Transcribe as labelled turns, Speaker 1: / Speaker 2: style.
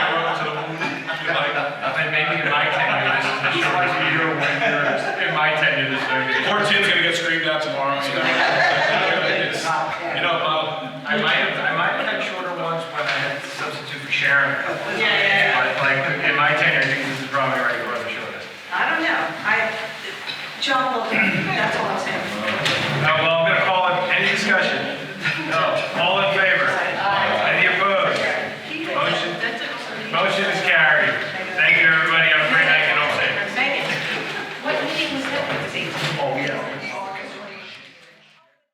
Speaker 1: John Wilkins, that's all